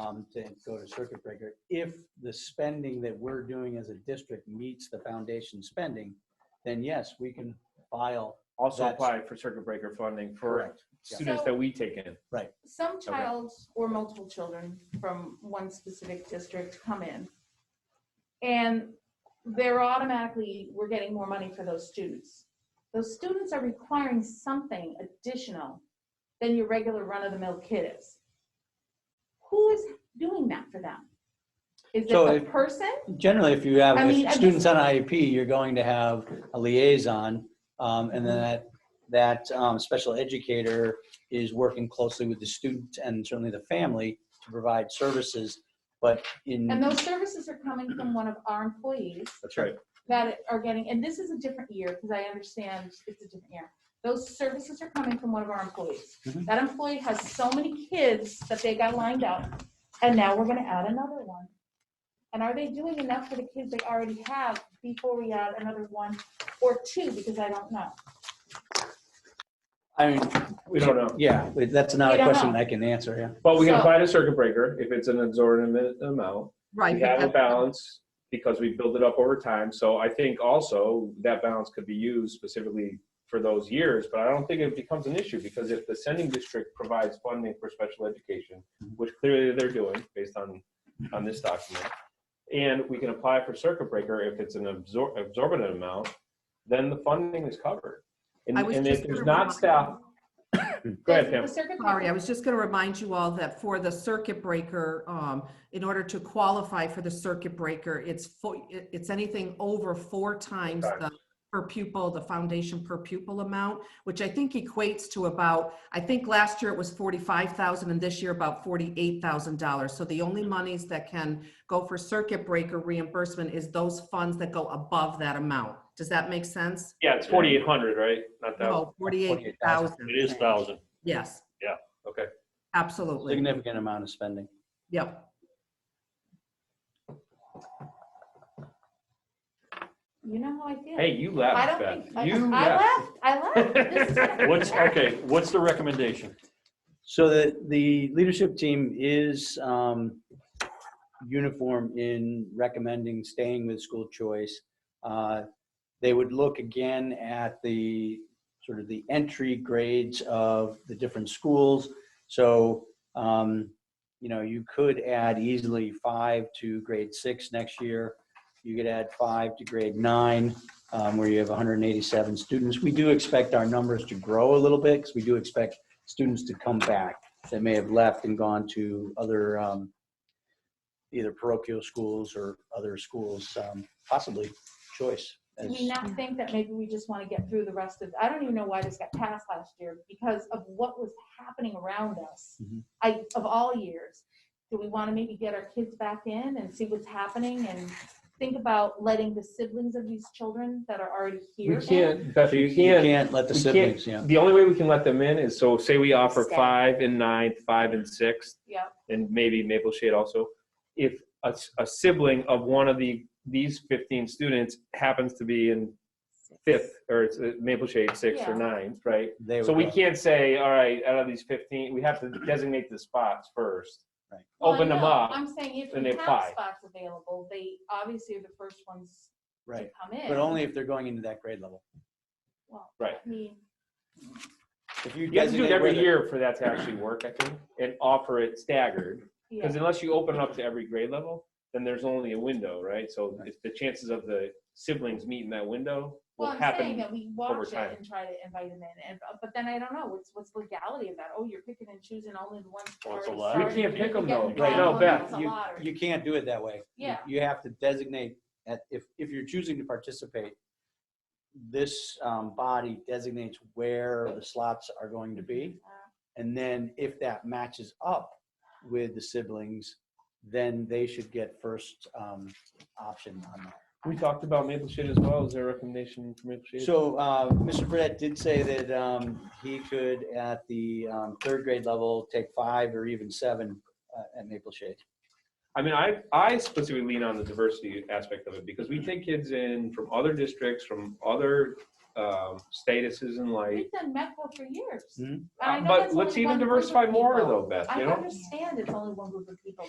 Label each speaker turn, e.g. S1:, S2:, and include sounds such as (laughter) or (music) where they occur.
S1: um, to go to circuit breaker, if the spending that we're doing as a district meets the foundation spending, then yes, we can file,
S2: Also
S1: That's-
S2: apply for circuit breaker funding for
S1: correct, yeah.
S2: students that we take in.
S3: Some child or multiple children from one specific district come in. And they're automatically, we're getting more money for those students. Those students are requiring something additional than your regular run-of-the-mill kid is. Who is doing that for them? Is it
S1: So
S3: the
S1: if-
S3: person?
S1: Generally, if you have
S3: I mean,
S1: if
S3: I
S1: students on IEP, you're going to have a liaison, um, and then that, that um, special educator is working closely with the student and certainly the family to provide services, but in.
S3: And those services are coming from one of our employees.
S2: Mm. That's right.
S3: that are getting, and this is a different year, because I understand it's a different year. Those services are coming from one of our employees.
S2: Mm-hmm.
S1: Mhm.
S3: That employee has so many kids that they got lined up, and now we're gonna add another one. And are they doing enough for the kids they already have before we add another one or two, because I don't know.
S1: I mean,
S2: We don't know.
S1: yeah, but that's not
S3: We
S1: a
S3: don't
S1: question
S3: know.
S1: I can answer, yeah.
S2: But we can
S3: So-
S2: apply to circuit breaker if it's an exorbitant amount.
S4: Right.
S2: We
S4: but
S2: have a
S4: that's-
S2: balance because we build it up over time. So I think also that balance could be used specifically for those years, but I don't think it becomes an issue because if the sending district provides funding for special education, which clearly they're doing based on, on this document, and we can apply for circuit breaker if it's an absor- absorbent amount, then the funding is covered. And
S4: I was
S2: and
S4: just
S2: if there's
S4: gonna
S2: not
S4: remind-
S2: staff, go ahead,
S3: The
S2: Pam.
S3: circuit
S4: Sorry, I
S3: breaker-
S4: was just going to remind you all that for the circuit breaker, um, in order to qualify for the circuit breaker, it's fo- it- it's anything over four times the per pupil, the foundation per pupil amount, which I think equates to about, I think last year it was forty-five thousand and this year about forty-eight thousand dollars. So the only monies that can go for circuit breaker reimbursement is those funds that go above that amount. Does that make sense?
S2: Yeah, it's 4,800, right? Not that.
S4: No, forty-eight thousand.
S5: It is thousand.
S4: Yes.
S5: Yeah,
S2: okay.
S4: Absolutely.
S1: Significant amount of spending.
S4: Yep.
S3: You know how I feel.
S2: Hey, you
S3: I
S2: laughed,
S3: don't
S2: Beth.
S3: think, I
S2: You
S3: I
S2: laughed.
S3: left, I left.
S2: (laughs)
S3: This is what I
S5: What's,
S3: left.
S5: okay, what's the recommendation?
S1: So the, the leadership team is um, uniform in recommending staying with school choice. Uh, They would look again at the, sort of the entry grades of the different schools. So, um, you know, you could add easily five to grade six next year. You could add five to grade nine, um, where you have 187 students. We do expect our numbers to grow a little bit, because we do expect students to come back that may have left and gone to other, um, either parochial schools or other schools, um, possibly choice.
S3: Do
S1: as-
S3: we not think that maybe we just want to get through the rest of, I don't even know why this got passed last year, because of what was happening around us,
S2: Mm-hmm.
S1: Mhm.
S3: I, of all years. Do we want to maybe get our kids back in and see what's happening and think about letting the siblings of these children that are already here?
S2: You
S3: in?
S2: can't, Beth, you
S1: You
S2: can't.
S1: can't let the
S2: we can't-
S1: siblings, yeah.
S2: The only way we can let them in is, so say we offer
S3: Stay.
S2: five and ninth, five and sixth,
S3: Yeah,
S2: and maybe Maple Shade also. If a, s- a sibling of one of the, these fifteen students happens to be in fifth, or it's uh, Maple Shade sixth or
S3: Yeah.
S2: ninth, right?
S1: They
S2: So
S1: would
S2: we
S1: go.
S2: can't say, all right, out of these fifteen, we have to designate the spots first.
S1: Right.
S3: Well, I
S2: Open them
S3: know.
S2: up.
S3: I'm saying if
S2: and
S3: we
S2: they
S3: have
S2: apply.
S3: spots available, they obviously are the first ones to
S1: Right,
S3: come in.
S1: but only if they're going into that grade level.
S3: Well,
S2: Right.
S3: I mean,
S1: If you
S2: You have to do
S1: designate
S2: it
S1: where
S2: every
S1: the-
S2: year for that to actually work, I think, and offer it staggered.
S3: yeah.
S2: Because unless you open it up to every grade level, then there's only a window, right? So if the chances of the siblings meeting that window will
S3: Well, I'm
S2: happen.
S3: saying that we
S2: over
S3: watch
S2: time.
S3: it and try to invite them in, and, but then I don't know, what's, what's legality of that? Oh, you're picking and choosing only the ones.
S5: Well, it's
S3: already
S5: allowed.
S2: We
S5: Sorry.
S3: started.
S2: can't pick them though.
S3: You're
S1: Right.
S2: Right,
S3: getting
S2: no,
S3: drawn
S2: Beth,
S3: into the
S2: you,
S3: lottery.
S1: You can't do it that way. You-
S3: Yeah.
S1: You have to designate, at, if, if you're choosing to participate, this, um, body designates where the slots are going to be.
S3: Uh,
S1: And then if that matches up with the siblings, then they should get first, um, option on that.
S2: we talked about Maple Shade as well. Is there a recommendation for Maple Shade?
S1: So uh, Mr. Burnett did say that um, he could, at the um, third grade level, take five or even seven uh, at Maple Shade.
S2: I mean, I, I specifically lean on the diversity aspect of it because we take kids in from other districts, from other um, statuses in life.
S3: We've done MEPCO for years.
S1: Mhm.
S3: And I know
S2: Hmm? Uh, But
S3: that's
S2: let's
S3: only
S2: even
S3: one group of
S2: diversify more
S3: people.
S2: though, Beth,
S3: I
S2: you know?
S3: understand it's only one group of people,